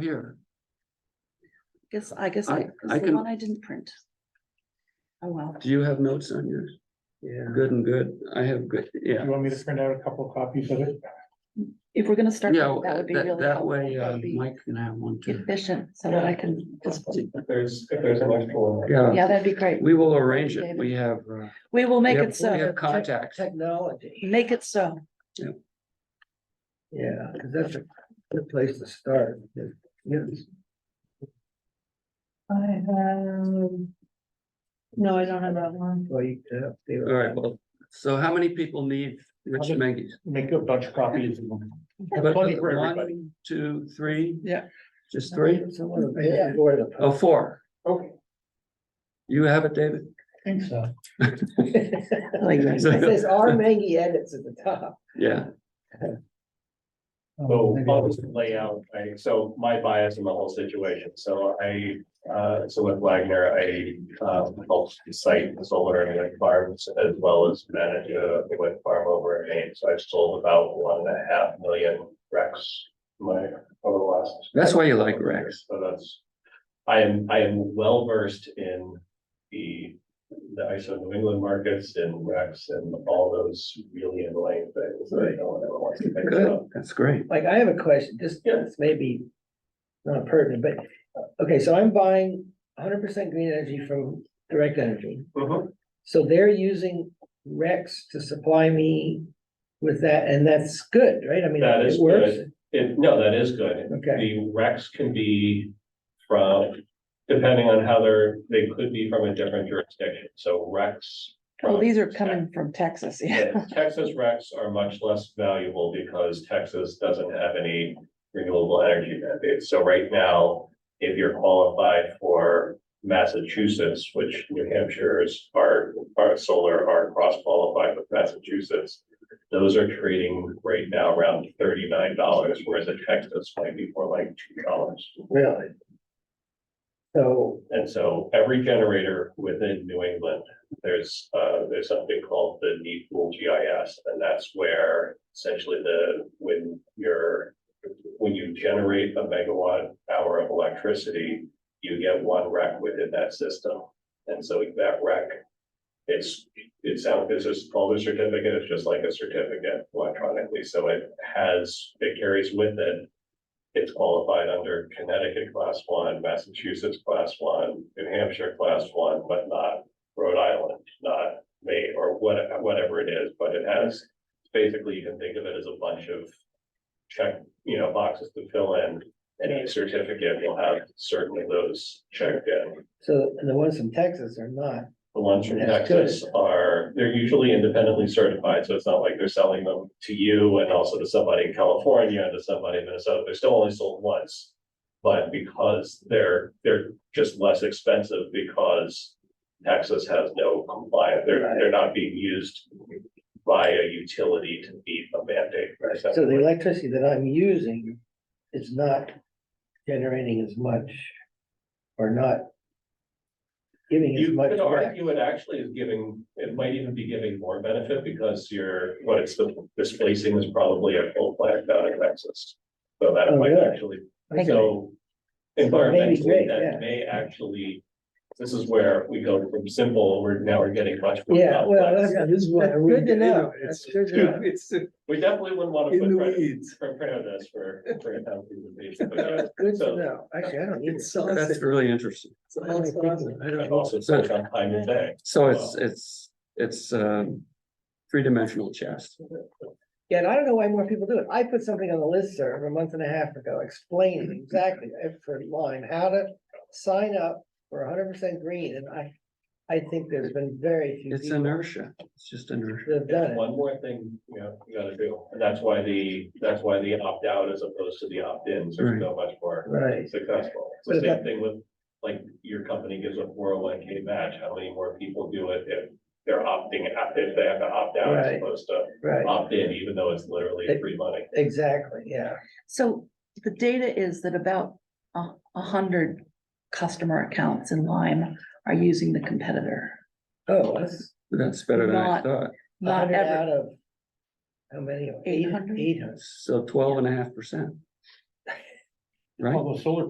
Here, Guess, I guess I- I, I it's the can- one I didn't print. Oh, well, do you have notes on yours? Yeah. Good and good. I have good, yeah. You want me to print out a couple of copies of it? if we're gonna start, Yeah, that that would be that, really that helpful. way uh, That'd be Mike can have one too. Efficient, so that I can, just- If there's, if there's electrical. Yeah, yeah, that'd be great. we will arrange it. We have, uh, We will make we it have- we so, have contacts. Technology, make it so. yeah, 'cause that's a good place to start. Yes. I have. No, I don't have that one. Well, you can update it. All right, well, so how many people need Rich Mengies? Make a bunch of copies. of them. But Plenty for everybody. One, two, three? Yeah. Just three? Someone will pay it for it. Oh, four. Okay. You have it, David? Think so. Like, It says R Mangy edits at the top. Yeah, Oh, So, I'll just lay out, I, so my bias in the whole situation, so I, uh, so with Wagner, I, uh, helped site the solar and wind farms as well as manage a wind farm over in Maine, so I've sold about one and a half million recs my, over the last. that's why you like Rex. So that's, I am, I am well versed in the, the ISO New England markets and recs and all those really annoying things that no one ever wants to think Good, about. that's great. Like, I have a question, this, Yeah. this may be not pertinent, but, uh, okay, so I'm buying hundred percent green energy from Direct Energy. Mm-hmm. Mhm. So they're using Rex to supply me with that, and that's good, right? I mean, That is it works. It- no, that is good. Okay, The recs can be from, depending on how they're, they could be from a different jurisdiction, so recs. Well, from- these are coming from Texas, yeah. Yeah, Texas recs are much less valuable because Texas doesn't have any renewable energy mandates. So right now, if you're qualified for Massachusetts, which New Hampshire's are, are solar are cross-qualified with Massachusetts, those are trading right now around thirty-nine dollars, whereas in Texas might be more like two dollars. really? So, And so every generator within New England, there's, uh, there's something called the need pool GIS, and that's where essentially the, when you're, when you generate a megawatt hour of electricity, you get one rec within that system. And so that rec, it's, it's out, it's just called a certificate, it's just like a certificate electronically, so it has, it carries with it it's qualified under Connecticut class one, Massachusetts class one, New Hampshire class one, but not Rhode Island, not Maine, or what, whatever it is, but it has, basically, you can think of it as a bunch of check, you know, boxes to fill in, and a certificate will have certain of those checked in. so the ones from Texas are not. The ones from That's good. Texas are, they're usually independently certified, so it's not like they're selling them to you and also to somebody in California and to somebody in Minnesota. They're still only sold once. But because they're, they're just less expensive because Texas has no compliant, they're, they're not being used by a utility to meet a mandate. So the essentially. electricity that I'm using is not generating as much or not giving as You much. could back. argue it actually is giving, it might even be giving more benefit because you're, what it's displacing is probably a full plant down in Texas. So that Oh, might really? actually, Okay. So so that may be environmentally, great, that yeah. may actually, this is where we go from simple, we're now we're getting much. more Yeah, well, complex. that's, that's good to know. That's good to know. We definitely wouldn't want to In put the credit weeds. for credit on this for, for a town presentation, but yeah. That's Good So- to know. Actually, I don't need It's it. awesome. That's really interesting. It's awesome. I don't And know. also it's on time of day. So it's, it's, it's, um, three-dimensional chess. Yeah, and I don't know why more people do it. I put something on the listserv a month and a half ago explaining exactly every line, how to sign up for hundred percent green and I, I think there's been very few It's people inertia. It's just inertia. that have done There's it. one more thing, you know, you gotta do, and that's why the, that's why the opt-out as opposed to the opt-ins are so much more Right. successful. It's the same thing with, like, your company gives a four oh one K match, how many more people do it if they're opting out, if they have to opt out as Right. opposed to Right, opt in, even though it's literally free money. exactly, yeah. So the data is that about a, a hundred customer accounts in Lime are using the competitor. Oh, that's That's better than I Not- thought. a Not hundred ever, out of. How many? 800? Eight hundred. So twelve and a half percent. right? Although solar